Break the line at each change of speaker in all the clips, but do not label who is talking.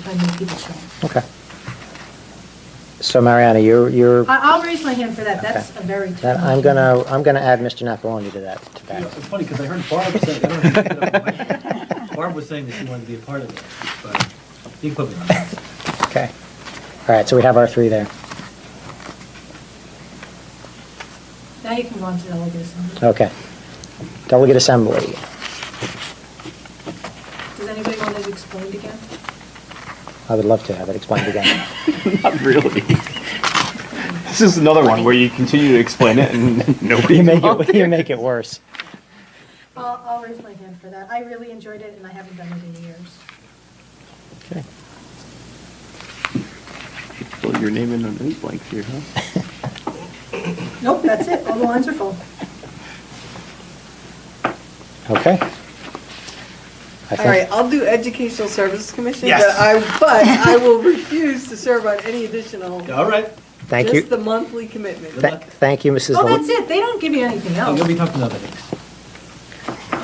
How many people show up.
Okay. So Mariana, you're, you're,
I- I'll raise my hand for that, that's a
Okay.
very
then
tough.
I'm gonna, I'm gonna add Mr. Napoloni to that, to
You know,
that.
It's funny, because I heard Barb say, I don't know if you picked it up on my- Barb was saying that she wanted to be a part of it, but you can put me on that.
Okay. All right, so we have our three there.
Now you can go on to delegate assembly.
Okay. Delegate Assembly.
Does anybody want it explained again?
I would love to have it explained again.
Not really. This is another one where you continue to explain it and nobody
You make
involved.
it, you make it worse.
I'll, I'll raise my hand for that. I really enjoyed it and I haven't done it in years.
Okay.
Fill your name in on any blank here, huh?
Nope, that's it, all the lines are full.
Okay. I
All right,
think,
I'll do Educational Services Commission,
Yes.
but I, but I will refuse to serve on any additional.
All right,
thank
Just the
you,
monthly commitment.
Good
Tha-
luck.
thank you, Mrs.
Oh,
Lo-
that's it, they don't give you anything
I'm
else.
gonna be talking about it.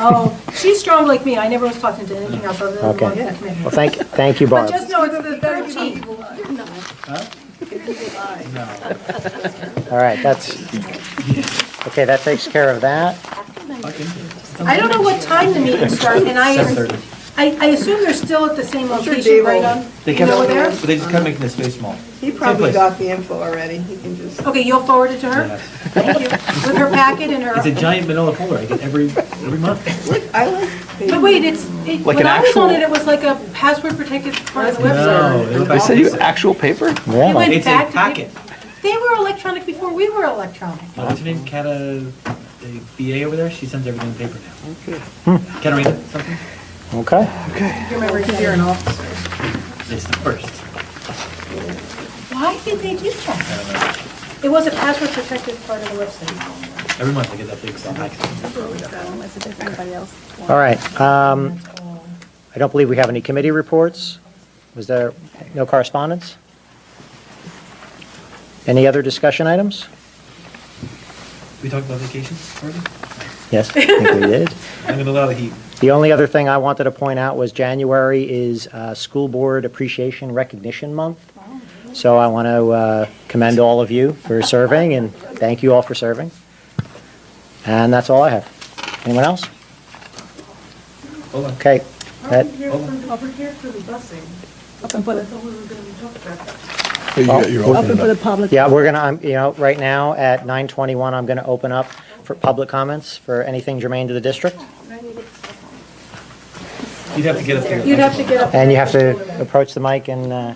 Oh, she's strong like me, I never was talking to anything else other than the
Okay.
monthly commitment.
Well, thank, thank you,
But
Barb.
just know it's the
Gotta give
13th.
people eye.
Huh? No,
All right, that's, okay, that takes care of that.
okay.
I don't know what time the meetings start, and I,
7:30.
I, I assume they're still at the same
I'm sure
location
Dave
right
will-
on,
They
you
kept,
know, there?
they just kept making the space small.
He
place.
probably got the info already, he can just.
Okay, you'll forward it to her?
Yeah.
Thank you. With her packet and her.
It's a giant manila folder, I get every, every month.
I like.
But wait, it's, it,
Like
when
an
I was on
actual-
it, it was like a password protected part of the
No,
website.
No,
They send you actual paper?
They went
Really?
It's a
back to-
packet.
They were electronic before we were electronic.
Uh, What's her name, Kata, the BA over there, she sends everything in paper now.
Okay.
Katarina, something?
Okay.
You remember
Because you're an
that?
officer.
It's the first.
Why did they do
I
that?
don't
It
know.
was a password protected part of the website.
Every month I get that big packet.
All right, um,
That's all.
I don't believe we have any committee reports. Was there no correspondence? Any other discussion items?
We talked about vacations already?
Yes, I think we did.
I'm gonna allow the heat.
The only other thing I wanted to point out was January is uh, School Board Appreciation Recognition Month. So I want to uh, commend all of you for serving and thank you all for serving. And that's all I have. Anyone else?
Hold on.
Okay. That-
Hey, you got your alternate.
Yeah, we're gonna, um, you know, right now at 9:21, I'm gonna open up for public comments for anything germane to the district.
You'd have to get up there.
You'd have to get up.
And you have to approach the mic and, uh,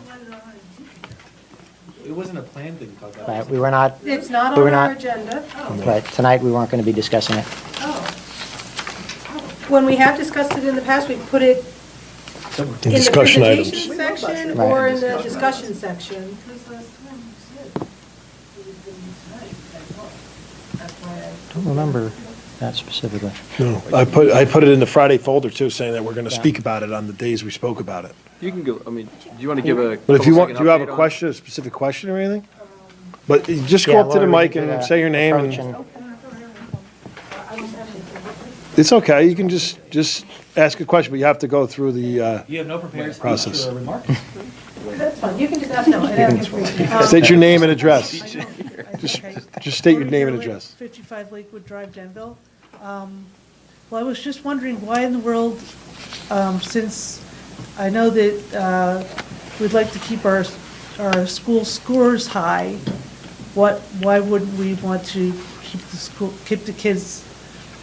It wasn't a planned thing to talk about.
right, we were not,
It's not
We're
on our
not-
agenda. Oh,
right, tonight we weren't gonna be discussing it.
When we have discussed it in the past, we put it
Somewhere.
in the
discussion items.
presentation section or in the discussion section.
Don't remember that specifically.
No, I put, I put it in the Friday folder too, saying that we're going to speak about it on the days we spoke about it.
You can go, I mean, do you want to give a?
But if you want, do you have a question, a specific question or anything? Um, But you just go
Yeah,
up to the
Laura, we
mic
can do
and
that.
say your name
Approach
and, it's okay, you can just, just ask a question, but you have to go through the, uh,
You have no prepared speech
Process.
or remarks?
That's fine, you can just ask them.
state your name and address. Just, just state your name and address.
55 Lakewood Drive, Denville. Um, Well, I was just wondering why in the world, um, since I know that uh, we'd like to keep our, our school scores high, what, why wouldn't we want to keep the school, keep the kids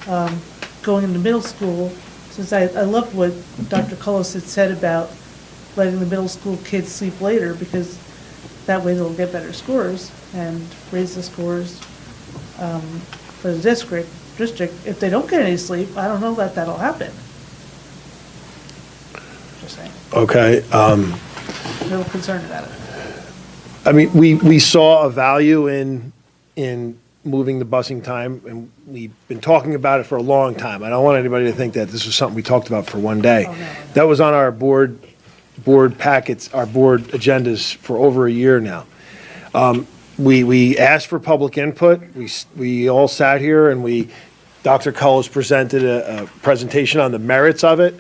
um, going into middle school? Since I, I loved what Dr. Cullis had said about letting the middle school kids sleep later because that way they'll get better scores and raise the scores um, for the district, district, if they don't get any sleep, I don't know that that'll happen. Just saying,
Okay, um,
a little concerned about it.
I mean, we, we saw a value in, in moving the busing time, and we've been talking about it for a long time. I don't want anybody to think that this was something we talked about for one day. That was on our board, board packets, our board agendas for over a year now. Um, We, we asked for public input, we, s- we all sat here and we, Dr. Cullis presented a, a presentation on the merits of it,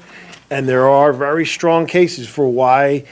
and there are very strong cases for why